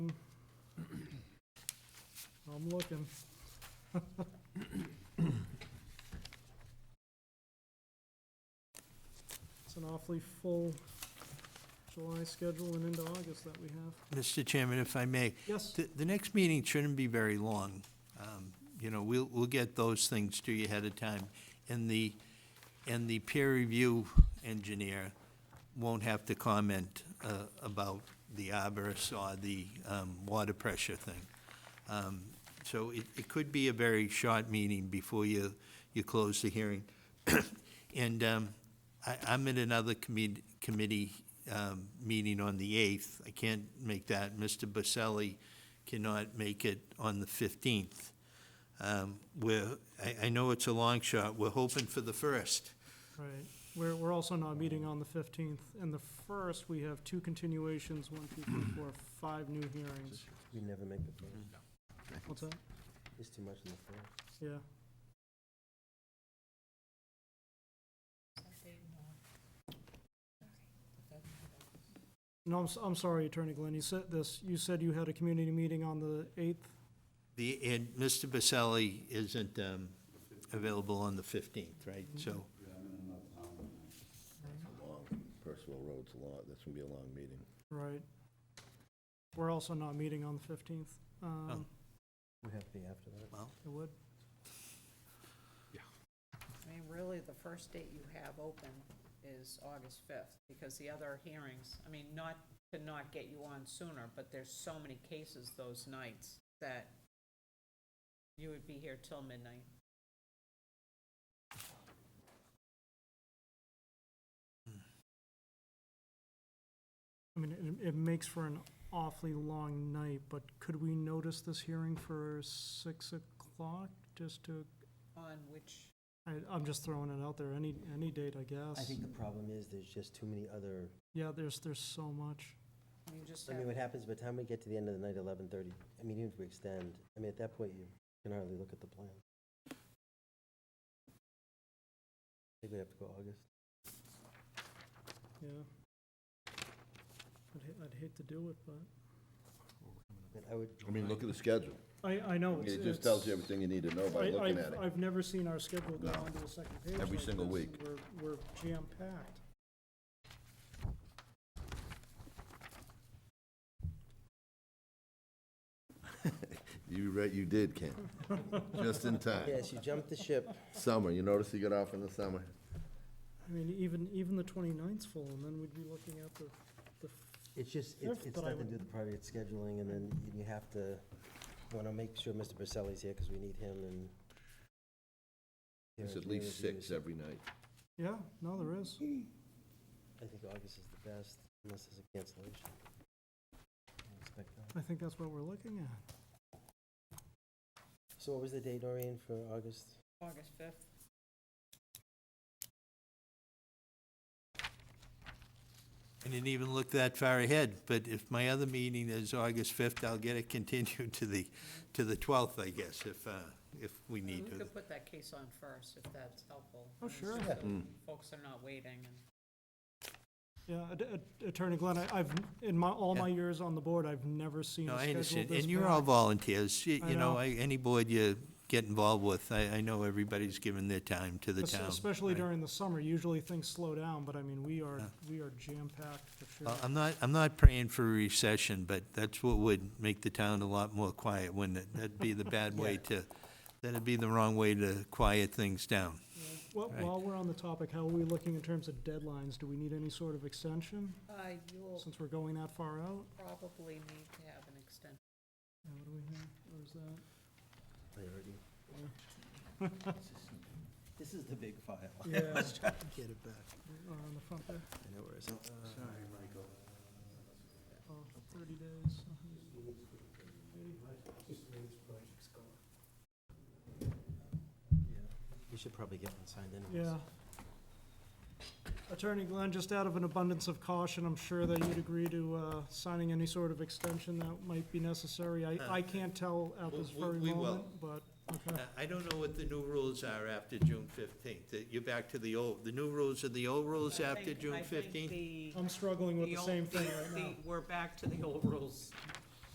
I'm looking. It's an awfully full July schedule and into August that we have. Mr. Chairman, if I may, Yes, the, the next meeting shouldn't be very long. Um, You know, we'll, we'll get those things to you ahead of time. And the, and the peer review engineer won't have to comment uh, about the arborist or the um, water pressure thing. Um, So it, it could be a very short meeting before you, you close the hearing. And um, I, I'm at another committee, committee um, meeting on the 8th. I can't make that. Mr. Baselli cannot make it on the 15th. Um, We're, I, I know it's a long shot. We're hoping for the 1st. right. We're, we're also not meeting on the fifteenth. And the first, we have two continuations, one, two, three, four, five new hearings. We never make the phone. What's that? It's too much in the phone. Yeah. No, I'm, s- I'm sorry, Attorney Glenn, you said this, you said you had a community meeting on the 8th? The, and Mr. Baselli isn't um, available on the 15th, right? So, Percival Road's a lot, that's gonna be a long meeting. Right. We're also not meeting on the 15th. Um, We have to be after that. well, It would, I mean, really, the first date you have open is August 5th, because the other hearings, I mean, not to not get you on sooner, but there's so many cases those nights that you would be here till midnight. I mean, it, it makes for an awfully long night, but could we notice this hearing for 6 o'clock? Just to, On which, I, I'm just throwing it out there, any, any date, I guess. I think the problem is there's just too many other, Yeah, there's, there's so much. you just I have, mean, what happens by the time we get to the end of the night, eleven thirty, I mean, even if we extend, I mean, at that point, you can hardly look at the plan. I think we have to go August. Yeah. I'd, ha- I'd hate to do it, but I mean, I would, I mean, look at the schedule. I, I know. it's- It just tells you it's- everything you need to know by I- looking I've- at it. I've never seen our schedule go No. on to the second page. Every like single this, week. and We're, we're jam-packed. You right, you did, Ken. Just in time. yes, you jumped the ship. Summer, you notice he got off in the summer? I mean, even, even the 29th's full, and then we'd be looking at the, the, It's just, it's, Fifth, it's but I nothing to do would- with the private scheduling, and then you have to, want to make sure Mr. Baselli's here, because we need him, and. It's Yeah, at least reviews. six every night. yeah, no, there is. I think August is the best, unless there's a cancellation. I expect that. I think that's what we're looking at. So what was the date, Noreen, for August? August 5th. I didn't even look that far ahead, but if my other meeting is August 5th, I'll get it continued to the, to the 12th, I guess, if, uh, if we You need to. could put that case on first, if that's helpful. Oh, I mean, sure. so Yeah. Folks are not waiting, and Yeah, Att- Att- Attorney Glenn, I- I've, in my, all my Yeah. years on the board, I've never seen No, a I schedule understand, this and you're all packed. volunteers, you I you know, know. I- any board you get involved with, I, I know everybody's giving their time to the Es- town. Especially right? during the summer, usually things slow down, but I mean, we are, we are jam-packed for sure. Well, I'm not, I'm not praying for a recession, but that's what would make the town a lot more quiet, wouldn't it? That'd be the bad way to, that'd be the wrong way to quiet things down. Well, Right. while we're on the topic, how are we looking in terms of deadlines? Do we need any sort of extension, uh, you will since we're going that far out? probably need to have an extension. Yeah, what do we have, or is that? Priority. This is the big file. Yeah. Let's try to get it back. Uh, Or on the front there, I know where it's at. oh, thirty days. uh-huh. We should probably get one signed anyways. Yeah. Attorney Glenn, just out of an abundance of caution, I'm sure that you'd agree to, uh, signing any sort of extension that might be necessary. I, I can't tell at this Uh, We- we- very we will. moment, but, okay, Uh, I don't know what the new rules are after June fifteenth. Uh, You're back to the old, the new rules are the old rules I think- I think the- I'm struggling with the old- same thing the- right now. the- We're back to the old rules.